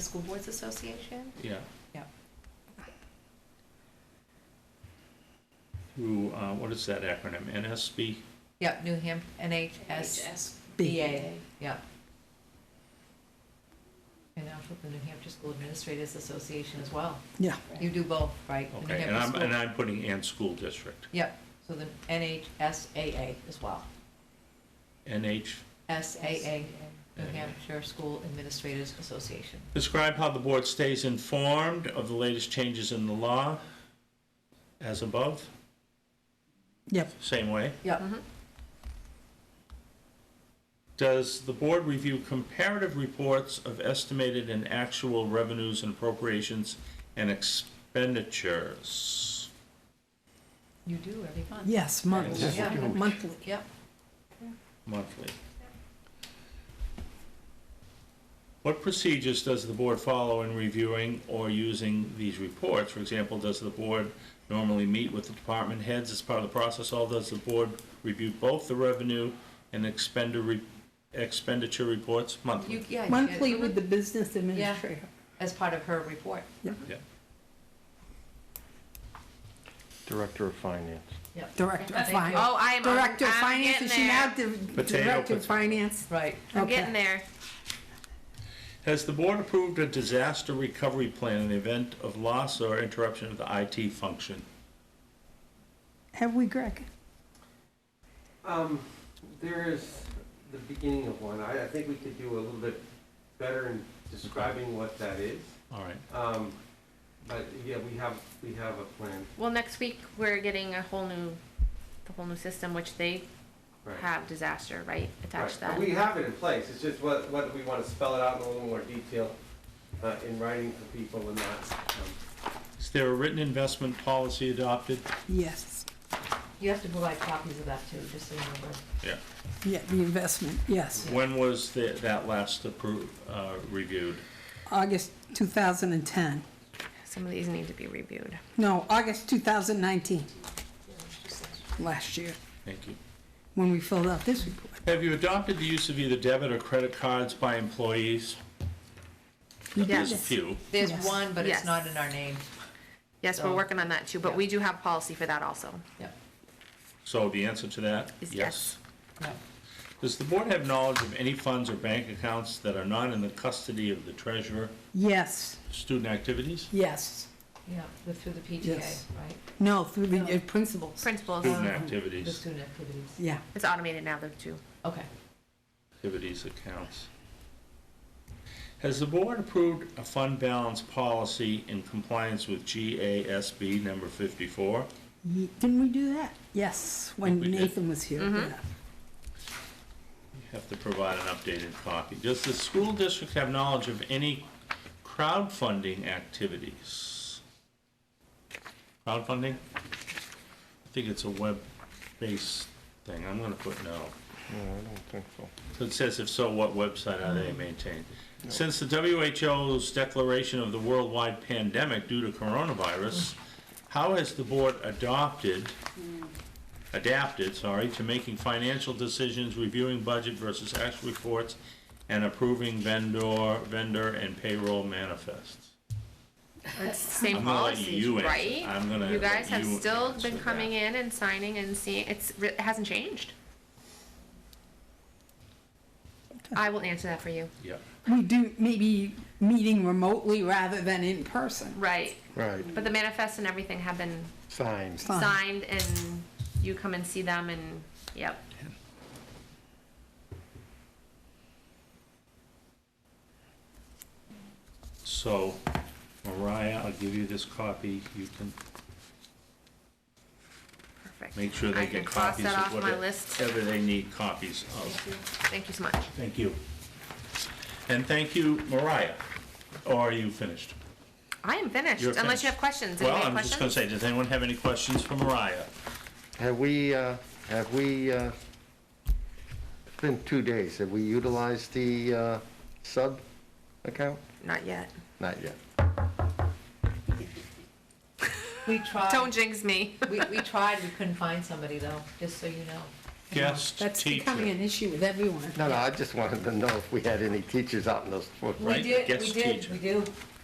School Boards Association? Yeah, Yep. through, uh, what is that acronym, NSB? Yep, New Ham, NHSBA, yep. And now for the New Hampshire School Administrators Association as well. Yeah. You do both, right? The New Okay, and I'm, Hampshire and School- I'm putting and school district, Yep, so the NHSAA as well. NH. SAA, New Yeah. Hampshire School Administrators Association. Describe how the board stays informed of the latest changes in the law as above, Yep. same way. Yep. Does the board review comparative reports of estimated and actual revenues and appropriations and expenditures? You do every month. Yes, monthly. Yeah. Monthly. Yep, monthly. What procedures does the board follow in reviewing or using these reports? For example, does the board normally meet with the department heads as part of the process? Or does the board review both the revenue and expenditure, expenditure reports you, monthly? yeah. you get it. Monthly with the business administrator. As part of her report, Yeah. Director of Finance. yep. Director of Thank you. Finance. Oh, I am, I'm Director of I'm Finance, getting is she now there. the Potato, Director potato. of Finance? Right, I'm Okay. getting there. Has the board approved a disaster recovery plan in the event of loss or interruption of the IT function? Have we, Greg? Um, there is the beginning of one. I, I think we could do a little bit better in describing what that is. All right. Um, but yeah, we have, we have a plan, Well, next week, we're getting a whole new, the whole new system, which they right? have disaster, right, attached to Right. that? We have it in place. It's just what, whether we want to spell it out in a little more detail, uh, in writing for people and not. um, Is there a written investment policy adopted? Yes. you have to provide copies of that too, just so you remember. Yeah. Yeah, the investment, yes. When was the- that last approved, reviewed? August 2010. Some of these need to be reviewed. No, August 2019. Last year, Thank you. when we filled out this report. Have you adopted the use of either debit or credit cards by employees? There's a Yes. few. There's Yes. one, but it's Yes. not in our name, Yes, we're So- working on that too, but we do have policy for that also. yep, So the answer to that? Is yes. yep. Does the board have knowledge of any funds or bank accounts that are not in the custody of the treasurer? Yes, Student activities? yes. Yeah, the, through the PTA, Yes. right? No, through the uh, principals. Principals, Student The activities, student activities, Yeah. it's automated now though too. okay. activities accounts. Has the board approved a fund balance policy in compliance with GASB number 54? Ye- Didn't we do that? Yes, when we did. Nathan was here. Mm-hmm. yeah. Have to provide an updated copy. Does the school district have knowledge of any crowdfunding activities? Crowdfunding? I think it's a web-based thing. I'm gonna put no. No, I don't think so. So It says if so, what website are they maintained? Since the WHO's declaration of the worldwide pandemic due to coronavirus, how has the board adopted, adapted, sorry, to making financial decisions, reviewing budget versus actual reports, and approving vendor, vendor and payroll manifests? It's the same I'm gonna let policies, you answer. right? I'm gonna You guys let have you still answer been that. coming in and signing and seeing, it's, re- it hasn't changed. I will answer that for you. Yeah. We do maybe meeting remotely rather than in person. Right, Right, but the manifests and everything have been signs. Fine. signed and you come and see them and, yep. So, Mariah, I'll give you this copy. You can Perfect. make sure I they can get cross copies that of off my whatever list. whatever they need copies of. Thank you so much. Thank you. And thank you, Mariah. Or are you finished? I am finished, You're unless you finished. have questions. Well, Anybody have I'm just gonna questions? say, does anyone have any questions for Mariah? Have we, uh, have we, uh, it's been two days, have we utilized the uh, sub account? Not yet. Not yet. We tried. Don't jinx me. We, we tried, we couldn't find somebody though, just so you know. guest That's becoming teacher. an issue with everyone. No, no, I just wanted to know if we had any teachers out in those footprints. We Right, did, guest we did, teacher. we do.